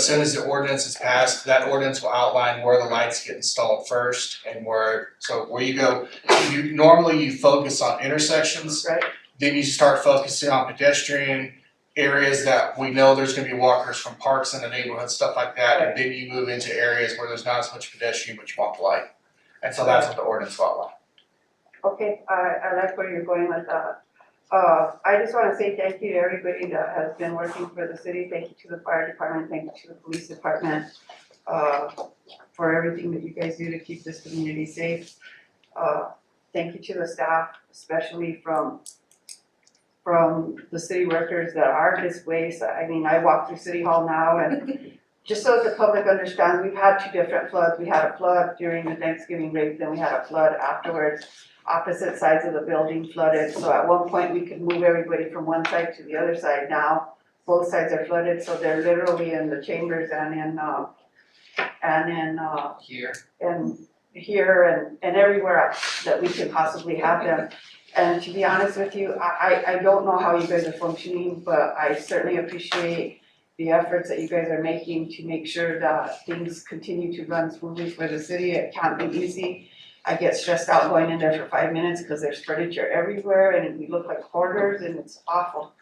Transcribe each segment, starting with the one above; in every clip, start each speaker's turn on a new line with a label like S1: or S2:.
S1: As soon as the ordinance is passed, that ordinance will outline where the lights get installed first and where, so where you go. You, normally you focus on intersections.
S2: Right.
S1: Then you start focusing on pedestrian areas that we know there's gonna be walkers from parks in the neighborhood, stuff like that. And then you move into areas where there's not as much pedestrian, but you want the light. And so that's what the ordinance will outline.
S2: Okay, I, I like where you're going with that. Uh, I just wanna say thank you to everybody that has been working for the city, thank you to the fire department, thank you to the police department, uh, for everything that you guys do to keep this community safe. Uh, thank you to the staff, especially from, from the city workers that are displaced, I mean, I walk through city hall now and just so that the public understands, we've had two different floods, we had a flood during the Thanksgiving break, then we had a flood afterwards opposite sides of the building flooded, so at one point we could move everybody from one side to the other side now. Both sides are flooded, so they're literally in the chambers and in, uh, and in, uh,
S3: Here.
S2: and here and, and everywhere else that we could possibly have them. And to be honest with you, I, I, I don't know how you guys are functioning, but I certainly appreciate the efforts that you guys are making to make sure that things continue to run smoothly for the city. It can't be easy. I get stressed out going in there for five minutes because there's furniture everywhere and we look like hoarders and it's awful.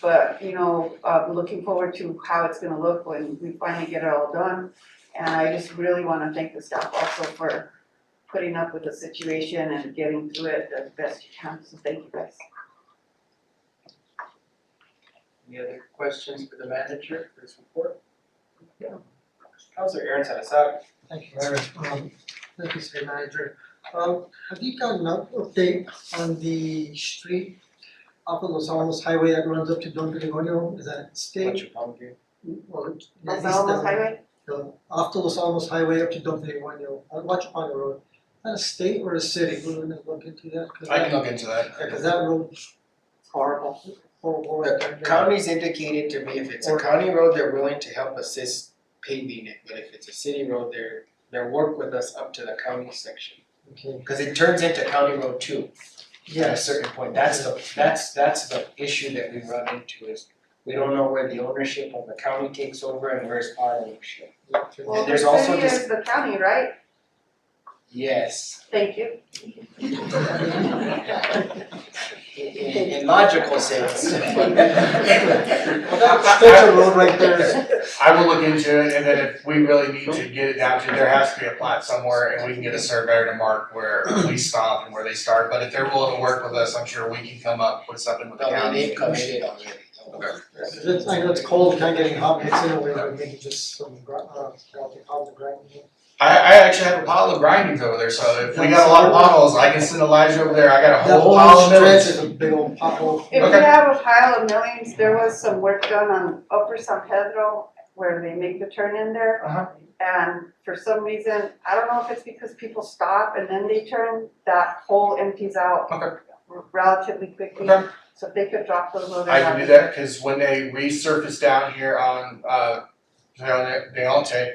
S2: But, you know, uh, looking forward to how it's gonna look when we finally get it all done. And I just really wanna thank the staff also for putting up with the situation and getting through it the best you can, so thank you guys.
S3: Any other questions for the manager for his report? Yeah. Counselor Aaron's had us out.
S4: Thank you, Eric. Um, thank you, City Manager. Um, have you gotten an update on the street off of Los Alamos Highway that runs up to Don Gregorio? Is that state?
S3: Bunch of pumpkin.
S4: Well, at
S2: Los
S4: least
S2: Alamos
S4: the-
S2: Highway,
S4: the- Uh, off the Los Alamos Highway up to Don Gregorio, Uh, on Huachapano Road. Is that a state or a city? We're gonna look into that, cause
S1: I can
S4: that,
S1: look into that.
S4: yeah, 'cause that road's
S2: it's horrible.
S4: horrible right
S3: The
S4: there.
S3: county's indicated to me if it's a county road, they're willing to help assist paving it, but if it's a city road, they're, they'll work with us up to the county section.
S4: Okay,
S3: Cause it turns into county road two at a
S4: yes,
S3: certain point, that's the, that's, that's the issue that we run into is we don't know where the ownership of the county takes over and where's our ownership.
S4: okay.
S2: Well, the
S3: there's also
S2: city
S3: this-
S2: is the county, right?
S3: Yes.
S2: Thank you.
S3: in in in logical sense.
S4: Well, that's, that's a road right there.
S1: I will look into it, and then if we really need to get it down to, there has to be a plat somewhere, and we can get a surveyor to mark where we stop and where they start, but if they're willing to work with us, I'm sure we can come up with something with the
S3: No,
S1: county.
S3: they've committed already.
S4: Yeah, 'cause it's, I know it's cold, kind of getting hot, it's in a way where maybe just some, gr- uh, melting on the ground.
S1: I, I actually have a pile of grindings over there, so if we got a lot of potholes, I can send Elijah over there, I got a
S4: That
S1: whole
S4: whole
S1: pile of
S4: stretch
S1: millings.
S4: is a big old pothole.
S2: If you
S1: Okay.
S2: have a pile of millions, there was some work done on Upper San Pedro where they make the turn in there.
S1: Uh-huh.
S2: And for some reason, I don't know if it's because people stop and then they turn, that hole empties out
S1: Okay.
S2: relatively quickly.
S1: Okay.
S2: So if they could drop those over
S1: I can do
S2: there.
S1: that, cause when they resurfaced down here on, uh, Leone- Leonte,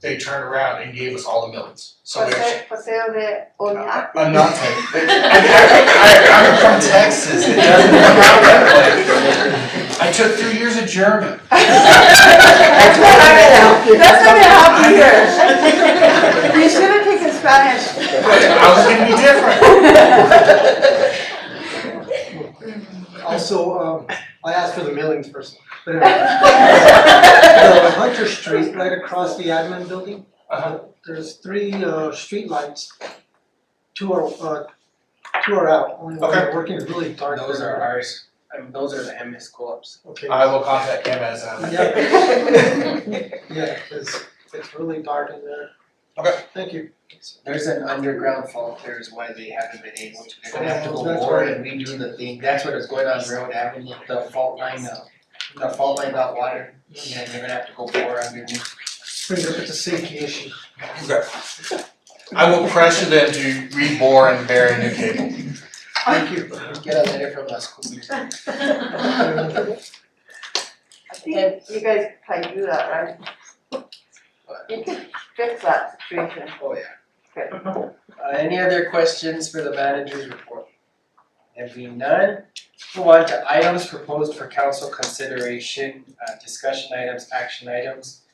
S1: they turned around and gave us all the millings, so we actually.
S2: Paseo, Paseo de Oñate.
S1: I'm not Texas. I, am from Texas. It doesn't work out that way. I took three years of German.
S2: That's what I meant, that's what I
S1: I
S2: happened here. You should have taken Spanish.
S1: was gonna be different.
S4: Also, um, I asked for the millings first, but anyway. The Hunter Street, right across the admin building,
S1: Uh-huh.
S4: there's three, uh, streetlights. Two are, uh, two are out, only one
S1: Okay.
S4: is working really dark.
S3: Those are ours, I mean, those are the MS co-ops.
S4: Okay.
S1: I will contact him as um,
S4: Yeah, yeah, 'cause it's really dark in there.
S1: Okay.
S4: Thank you.
S3: There's an underground fault, there's why they haven't been able to, they're gonna have to go
S4: That's
S3: bore
S4: right.
S3: and redo the thing, that's what is going on Railroad Avenue, the fault line, uh, the fault line got water, and they're gonna have to go bore underneath.
S4: Brings up, it's a safety issue.
S1: I will pressure them to rebore and bury a new cable.
S4: Thank you.
S3: Get a letter from us, cool.
S2: I think you guys probably do that, right? You could fix that situation.
S3: Oh, yeah. Uh, any other questions for the manager's report? If we none, move on to items proposed for council consideration, uh, discussion items, action items.